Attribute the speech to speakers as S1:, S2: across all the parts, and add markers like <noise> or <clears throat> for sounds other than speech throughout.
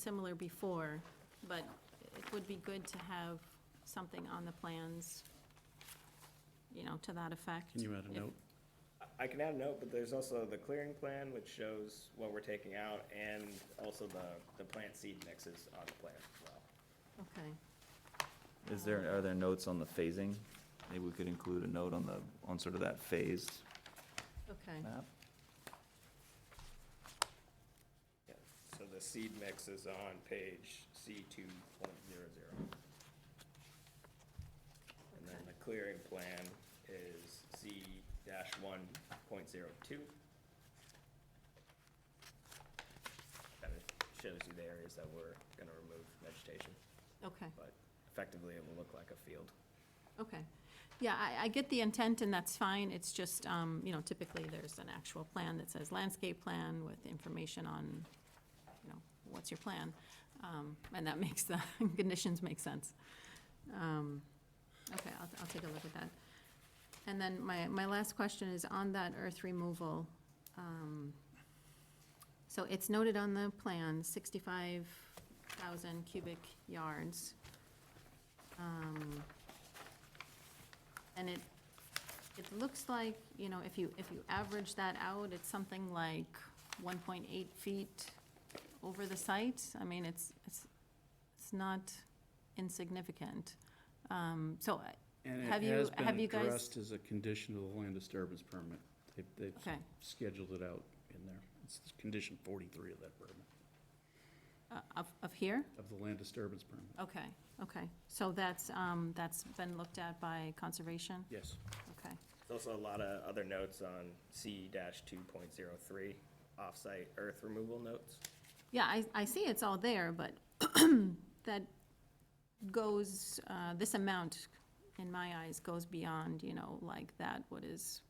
S1: similar before, but it would be good to have something on the plans, you know, to that effect.
S2: Can you add a
S1: If-
S2: note?
S3: I can add a note, but there's also the clearing plan, which shows what we're taking out, and also the, the plant seed mixes on the plan as well.
S1: Okay,
S4: Is there, are there notes on the phasing? Maybe we could include a note on the, on sort of that phased
S1: okay,
S4: map?
S3: Yeah. So the seed mix is on page C two point zero zero. And then the clearing plan is C dash one point zero two. That it shows you the areas that we're gonna remove vegetation,
S1: okay,
S3: but effectively it will look like a field.
S1: okay. Yeah, I, I get the intent and that's fine, it's just, um, you know, typically there's an actual plan that says landscape plan with information on, you know, what's your plan? Um, and that <laughs> makes the conditions make sense. Um, Okay, I'll, I'll take a look at that. And then my, my last question is on that earth removal. um, So it's noted on the plan, sixty-five thousand cubic yards. Um, And it, it looks like, you know, if you, if you average that out, it's something like one point eight feet over the site. I mean, it's, it's, it's not insignificant. Um, So I-
S2: And
S1: Have
S2: it
S1: you-
S2: has been
S1: have you guys-
S2: addressed as a condition of the land disturbance permit. They've, they've
S1: Okay.
S2: scheduled it out in there. It's condition forty-three of that permit,
S1: Uh, Of, of here?
S2: of the land disturbance permit.
S1: Okay, okay. So that's, um, that's been looked at by conservation?
S2: Yes.
S1: Okay,
S3: There's also a lot of other notes on C two point zero three, off-site earth removal notes.
S1: yeah, I, I see it's all there, but <clears throat> that goes, uh, this amount, in my eyes, goes beyond, you know, like that, what is,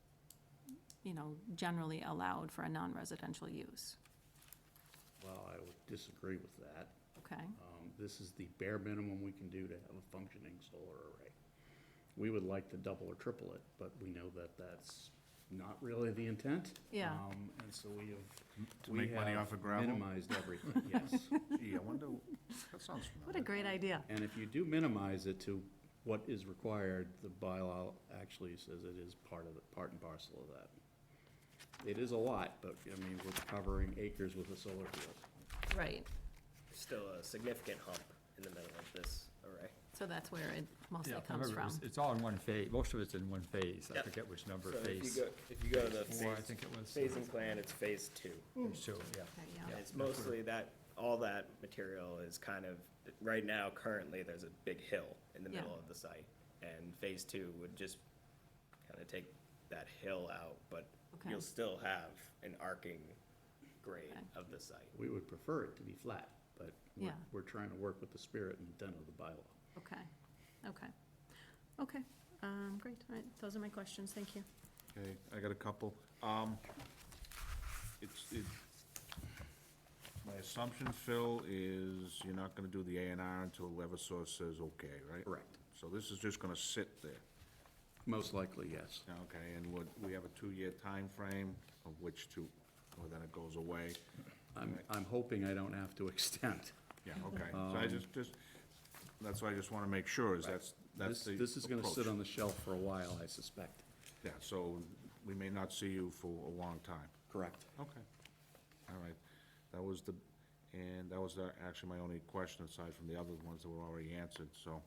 S1: you know, generally allowed for a non-residential use,
S2: Well, I would disagree with that.
S1: okay?
S2: Um, This is the bare minimum we can do to have a functioning solar array. We would like to double or triple it, but we know that that's not really the intent.
S1: Yeah.
S2: Um, And so we have.
S5: To
S2: we
S5: make money
S2: have
S5: off of gravel?
S2: Minimized everything, yes.
S5: Gee, I wonder, that sounds familiar.
S1: What a great idea.
S2: And if you do minimize it to what is required, the bylaw actually says it is part of, the part and parcel of that. It is a lot, but, I mean, we're covering acres with a solar field.
S1: Right.
S3: There's Still a significant hump in the middle of this array.
S1: So that's where it mostly
S6: Yeah, I
S1: comes
S6: remember it
S1: from.
S6: was- It's all in one phase, most of it's in one phase, I
S3: Yep.
S6: forget which number
S3: So if you
S6: phase.
S3: go, if you go to the
S6: phase four, I
S3: phase-
S6: think it was, uh,
S3: Phasing plan, it's phase two.
S6: So, yeah.
S1: Okay, yeah.
S6: yeah,
S3: It's mostly that, all that material is kind of, right now, currently, there's a big hill in the
S1: Yeah.
S3: middle of the site. And phase two would just kind of take that hill out, but
S1: Okay.
S3: you'll still have an arcing grade
S1: Okay.
S3: of the site.
S2: We would prefer it to be flat, but we're,
S1: Yeah.
S2: we're trying to work with the spirit and intent of the bylaw.
S1: Okay, okay, okay, um, great, all right, those are my questions, thank you.
S5: Okay, I got a couple. Um, it's, it, my assumption, Phil, is you're not gonna do the A and R until Eversource says okay, right?
S2: Correct.
S5: So this is just gonna sit there.
S2: Most likely, yes.
S5: Okay, and what, we have a two-year time frame of which to, well, then it goes away.
S2: I'm, I'm hoping I don't have to <laughs> extend.
S5: Yeah, okay, so I just, just, that's why I just wanna make sure, is that's,
S2: This,
S5: that's the
S2: this is gonna sit
S5: approach.
S2: on the shelf for a while, I suspect.
S5: Yeah, so we may not see you for a long time.
S2: Correct.
S5: Okay. All right, that was the, and that was uh, actually my only question aside from the other ones that were already answered, so.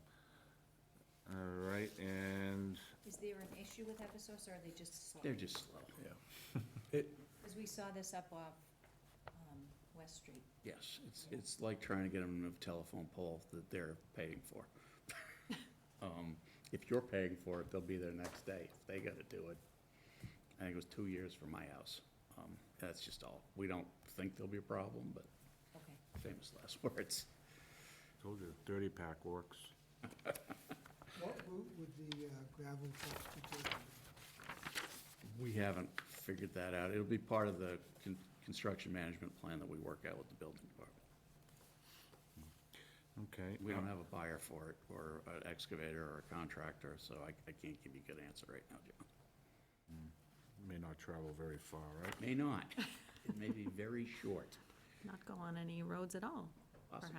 S5: All right, and,
S7: Is there an issue with Eversource, or are they just slow?
S2: They're just slow. Yeah.
S7: Because we saw this up off um, West Street.
S2: Yes, it's, it's like trying to get them a telephone pole that they're paying for. Um, If you're paying for it, they'll be there next day. If They gotta do it. I think it was two years for my house. Um, That's just all. We don't think there'll be a problem, but
S7: Okay.
S2: famous last <laughs> words.
S5: told you, the thirty pack works.
S8: What route would the uh, gravel trucks be taking?
S2: We haven't figured that out. It'll be part of the con- construction management plan that we work out with the building department.
S5: Okay.
S2: We don't have a buyer for it, or an excavator, or a contractor, so I, I can't give you a good answer right now, John.
S5: May not travel very far, right?
S2: May not. It may be very short.
S1: Not go on any roads at all.
S2: possibly.